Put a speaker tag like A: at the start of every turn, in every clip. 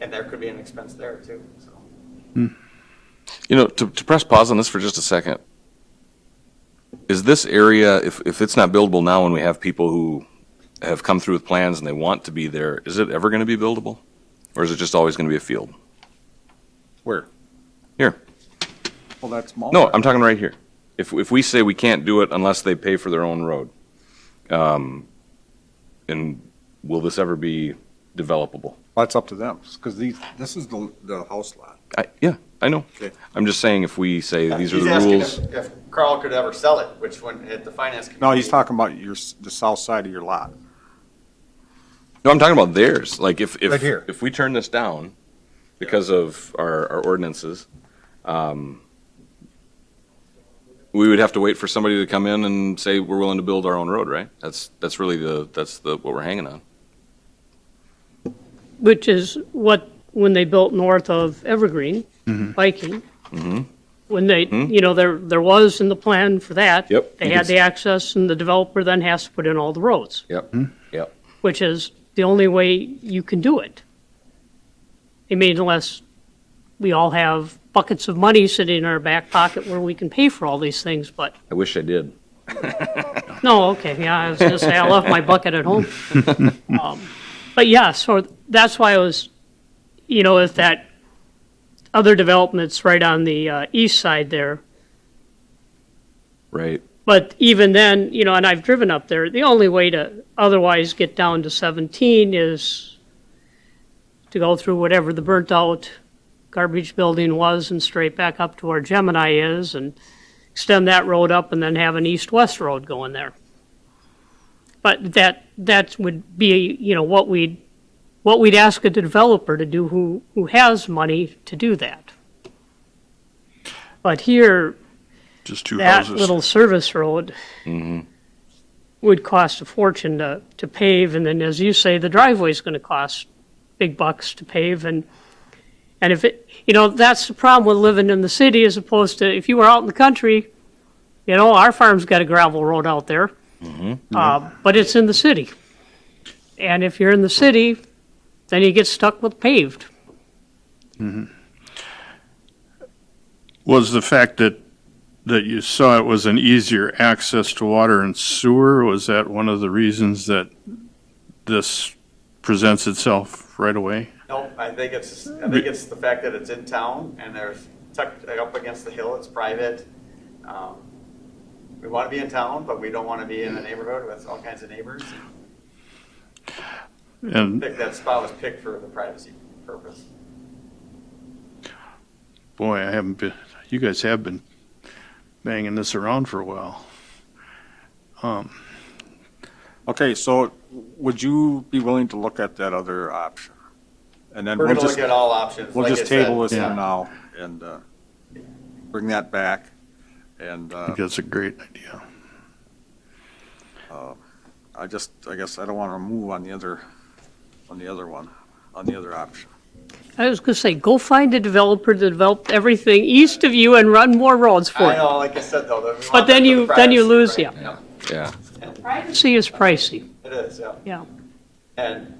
A: and there could be an expense there too, so.
B: You know, to, to press pause on this for just a second, is this area, if, if it's not buildable now and we have people who have come through with plans and they want to be there, is it ever going to be buildable? Or is it just always going to be a field?
C: Where?
B: Here.
C: Well, that's Mulberry.
B: No, I'm talking right here. If, if we say we can't do it unless they pay for their own road, um, and will this ever be developable?
C: That's up to them, because these, this is the, the house lot.
B: I, yeah, I know.
C: Okay.
B: I'm just saying if we say these are
A: He's
B: the
A: asking
B: rules.
A: if- If Carl could ever sell it, which when, at the finance committee.
C: No, he's talking about your, s- the south side of your lot.
B: No, I'm talking about theirs. Like if, if,
C: Right here.
B: if we turn this down because of our, our ordinances, um, we would have to wait for somebody to come in and say, we're willing to build our own road, right? That's, that's really the, that's the, what we're hanging on.
D: which is what, when they built north of Evergreen, Viking, when they, you know, there, there was in the plan for that.
B: Yep.
D: They
B: You
D: had
B: can
D: the access, and the developer then has to put in all the roads,
B: Yep. Yep.
D: which is the only way you can do it. I mean, unless we all have buckets of money sitting in our back pocket where we can pay for all these things, but,
B: I wish I did.
D: no, okay, yeah, I was gonna say, I left my bucket at home. Um, But yeah, so that's why I was, you know, if that other development's right on the uh, east side there.
B: Right.
D: But even then, you know, and I've driven up there, the only way to otherwise get down to 17 is to go through whatever the burnt out garbage building was and straight back up to where Gemini is and extend that road up and then have an east-west road going there. But that, that would be, you know, what we'd, what we'd ask a developer to do who, who has money to do that. But here,
E: Just two
D: that
E: houses.
D: little service road would cost a fortune to, to pave, and then, as you say, the driveway's gonna cost big bucks to pave, and, and if it, you know, that's the problem with living in the city, as opposed to, if you were out in the country, you know, our farm's got a gravel road out there, uh, but it's in the city. And if you're in the city, then you get stuck with paved.
E: Was the fact that, that you saw it was an easier access to water and sewer, was that one of the reasons that this presents itself right away?
A: No, I think it's, I think it's the fact that it's in town and there's tucked up against the hill, it's private. Um, We want to be in town, but we don't want to be in the neighborhood with all kinds of neighbors. I
E: And,
A: think that spot was picked for the privacy purpose.
E: boy, I haven't been, you guys have been banging this around for a while.
C: Okay, so would you be willing to look at that other option? And then
A: We're
C: we'll
A: going to look
C: just,
A: at all options.
C: we'll
A: like I
C: just
A: said.
C: table this
E: Yeah.
C: for now and, uh, bring that back. And,
E: I
C: uh,
E: think that's a great idea.
C: I just, I guess I don't want to move on the other, on the other one, on the other option.
D: I was gonna say, go find a developer to develop everything east of you and run more roads for
A: I
D: it.
A: know, like I said, though. that we want
D: But then
A: that for
D: you,
A: the
D: then you
A: privacy,
D: lose,
A: right?
D: yeah.
B: Yeah.
D: Privacy is pricey,
A: It is, yeah.
D: yeah.
A: And,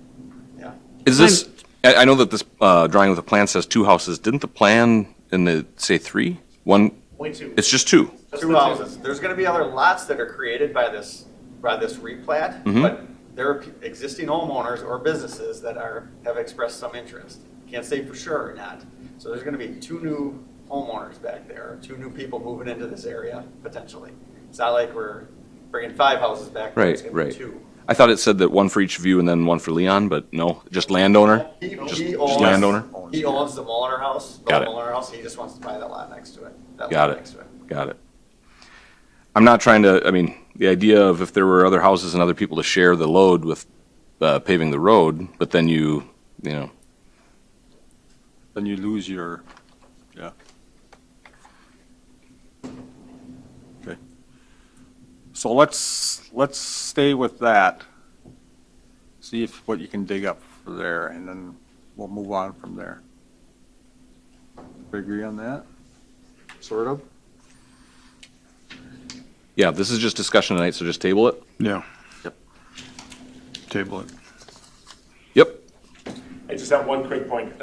A: yeah.
B: Is this, I, I know that this, uh, drawing with the plan says two houses. Didn't the plan in the, say three? One,
A: Point two.
B: it's just two.
A: Two houses. There's gonna be other lots that are created by this, by this replat,
B: Mm-hmm.
A: but there are pe- existing homeowners or businesses that are, have expressed some interest. Can't say for sure or not. So there's gonna be two new homeowners back there, two new people moving into this area potentially. It's not like we're bringing five houses back. there, it's
B: Right,
A: gonna be
B: right.
A: Two.
B: I thought it said that one for each view and then one for Leon, but no, just landowner?
A: He-
B: Just-
A: he
B: just
A: owns-
B: landowner?
A: He owns the Mulliner House. the
B: Got it.
A: Mulliner House, he just wants to buy that lot next to it. that lot
B: Got it.
A: next to
B: Got it. I'm not trying to, I mean, the idea of if there were other houses and other people to share the load with uh, paving the road, but then you, you know,
C: Then you lose your, yeah. Okay. So let's, let's stay with that. See if, what you can dig up for there, and then we'll move on from there. We agree on that? Sort of?
B: yeah, this is just discussion tonight, so just table it.
E: Yeah.
C: Yep.
E: Table it.
B: Yep.
F: I just have one quick point.